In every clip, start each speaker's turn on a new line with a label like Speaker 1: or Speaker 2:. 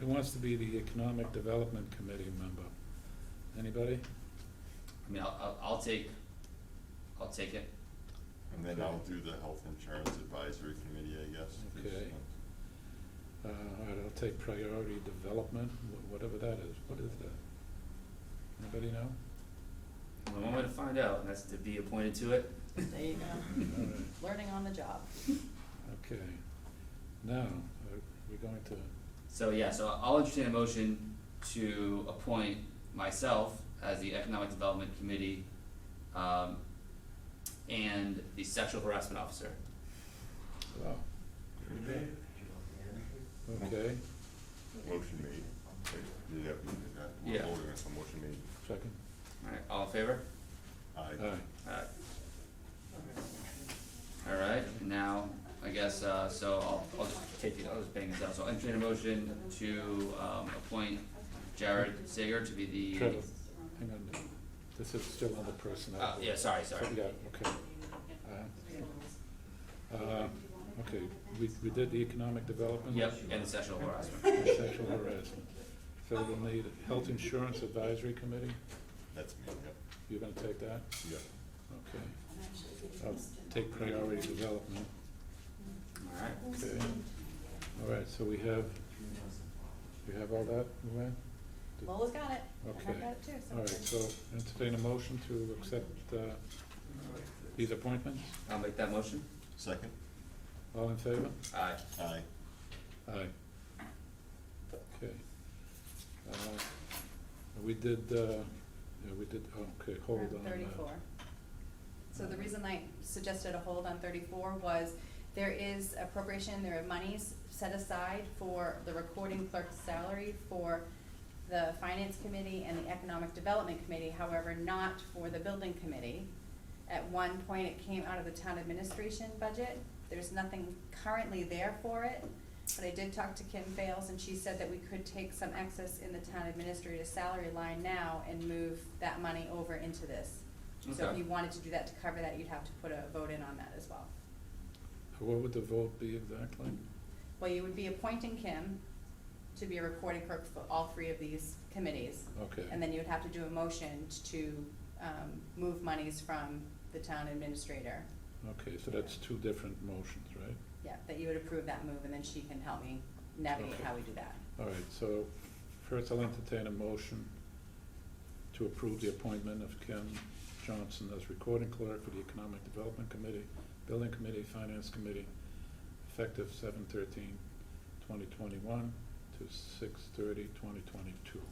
Speaker 1: Who wants to be the Economic Development Committee member? Anybody?
Speaker 2: I mean, I'll, I'll, I'll take, I'll take it.
Speaker 3: And then I'll do the health insurance advisory committee, I guess. 'cause,
Speaker 1: Okay. Uh,
Speaker 3: uh,
Speaker 1: all right, I'll take Priority Development, wh- whatever that is. What is that? Anybody know?
Speaker 2: Only one way to find out, and that's to be appointed to it.
Speaker 4: There you go.
Speaker 1: All right,
Speaker 4: Learning on the job.
Speaker 1: okay. Now, are we going to,
Speaker 2: So yeah, so I'll entertain a motion to appoint myself as the Economic Development Committee, um, and the Sexual Harassment Officer.
Speaker 1: wow, okay,
Speaker 3: Motion made. Wait, Did you have, uh, we're
Speaker 2: Yeah.
Speaker 3: voting on some motion made.
Speaker 1: second?
Speaker 2: Alright, all in favor?
Speaker 1: All
Speaker 3: Aye.
Speaker 1: right,
Speaker 2: Alright. Alright, now, I guess, uh, so I'll, I'll just take the, I'll just bang this out, so I'll entertain a motion to, um, appoint Jared Sager to be the.
Speaker 1: Trevor, hang on, this is still under personnel.
Speaker 2: Uh, yeah, sorry, sorry.
Speaker 1: Yeah, okay. Uh, uh, Okay, we, we did the economic development.
Speaker 2: Yep, and the sexual harassment.
Speaker 1: and Sexual harassment. So we'll need a health insurance advisory committee,
Speaker 3: That's me, yep,
Speaker 1: you're gonna take that?
Speaker 3: yep.
Speaker 1: Okay. I'll take priority development.
Speaker 2: Alright,
Speaker 1: Okay. All right, so we have, we have all that, Luann? Did-
Speaker 4: Lola's got it. And
Speaker 1: Okay.
Speaker 4: I got it too.
Speaker 1: All right, so entertain a motion to accept uh, these appointments.
Speaker 2: I'll make that motion.
Speaker 3: Second?
Speaker 1: All in favor?
Speaker 2: Aye.
Speaker 3: Aye.
Speaker 1: Aye. Okay. Uh, We did, uh, yeah, we did, oh, okay, hold on.
Speaker 4: Around
Speaker 1: uh,
Speaker 4: Thirty-four. So the reason I suggested a hold on thirty-four was there is appropriation, there are monies set aside for the recording clerk's salary for the finance committee and the economic development committee, however, not for the building committee. At one point, it came out of the town administration budget. There's nothing currently there for it. But I did talk to Kim Fales and she said that we could take some excess in the town administrator's salary line now and move that money over into this. So if
Speaker 2: Okay.
Speaker 4: you wanted to do that to cover that, you'd have to put a vote in on that as well.
Speaker 1: What would the vote be exactly?
Speaker 4: Well, you would be appointing Kim to be a recording clerk for all three of these committees.
Speaker 1: Okay.
Speaker 4: And then you would have to do a motion to, um, move monies from the town administrator.
Speaker 1: Okay, so that's two different motions, right?
Speaker 4: Yeah, that you would approve that move and then she can help me navigate
Speaker 1: Okay.
Speaker 4: how we do that.
Speaker 1: All right, so first I'll entertain a motion to approve the appointment of Kim Johnson as recording clerk for the Economic Development Committee, Building Committee, Finance Committee, effective seven thirteen twenty twenty-one to six thirty twenty twenty-two.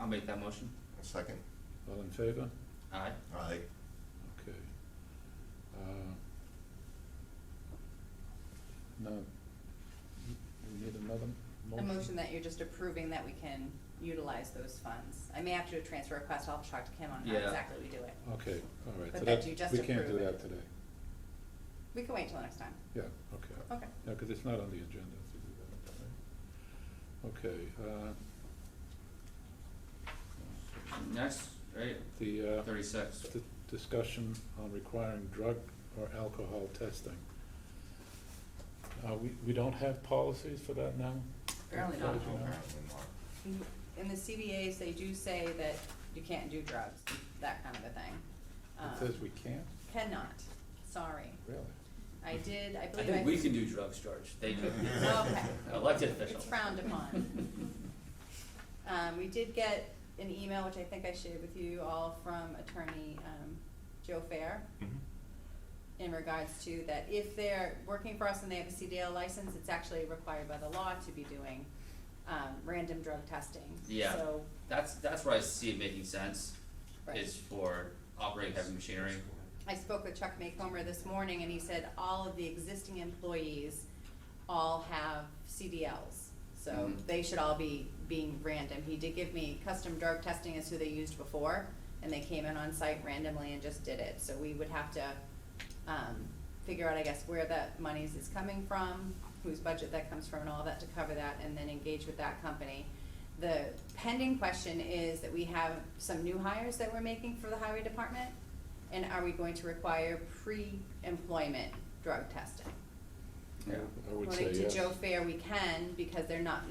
Speaker 2: I'll make that motion.
Speaker 3: Second?
Speaker 1: All in favor?
Speaker 2: Aye.
Speaker 3: Aye.
Speaker 1: Okay. Uh, Now, we need another
Speaker 4: A
Speaker 1: motion?
Speaker 4: motion that you're just approving that we can utilize those funds. I may have to do a transfer request, I'll talk to Kim on how
Speaker 2: Yeah.
Speaker 4: exactly we do it.
Speaker 1: Okay, all right,
Speaker 4: But
Speaker 1: so
Speaker 4: that
Speaker 1: that,
Speaker 4: you just
Speaker 1: we can't do
Speaker 4: approve it.
Speaker 1: that today.
Speaker 4: We can wait till next time.
Speaker 1: Yeah, okay.
Speaker 4: Okay.
Speaker 1: Yeah, because it's not on the agenda to do that, right? Okay, uh,
Speaker 2: Next, right,
Speaker 1: the, uh,
Speaker 2: thirty-six.
Speaker 1: di- discussion on requiring drug or alcohol testing. Uh, we, we don't have policies for that now?
Speaker 4: Apparently
Speaker 1: As
Speaker 4: not.
Speaker 1: you know?
Speaker 3: Apparently not.
Speaker 4: In the CBAs, they do say that you can't do drugs, that kind of a thing. Um,
Speaker 1: It says we can't,
Speaker 4: Cannot, sorry.
Speaker 1: really?
Speaker 4: I did, I
Speaker 2: I
Speaker 4: believe I.
Speaker 2: think we can do drugs, George. They could.
Speaker 4: Okay.
Speaker 2: Elected official.
Speaker 4: It's frowned upon. Um, we did get an email, which I think I shared with you all, from attorney, um, Joe Fair. in regards to that if they're working for us and they have a CDL license, it's actually required by the law to be doing um random drug testing.
Speaker 2: Yeah.
Speaker 4: So,
Speaker 2: That's, that's where I see it making sense,
Speaker 4: right.
Speaker 2: is for operating heavy machinery.
Speaker 4: I spoke with Chuck Maycomer this morning and he said all of the existing employees all have CDLs. So
Speaker 2: Mhm.
Speaker 4: they should all be being random. He did give me custom drug testing is who they used before and they came in on site randomly and just did it. So we would have to um, figure out, I guess, where that monies is coming from, whose budget that comes from and all that to cover that and then engage with that company. The pending question is that we have some new hires that we're making for the highway department. And are we going to require pre-employment drug testing?
Speaker 2: Yeah.
Speaker 1: I would say yes.
Speaker 4: According to Joe Fair, we can because they're not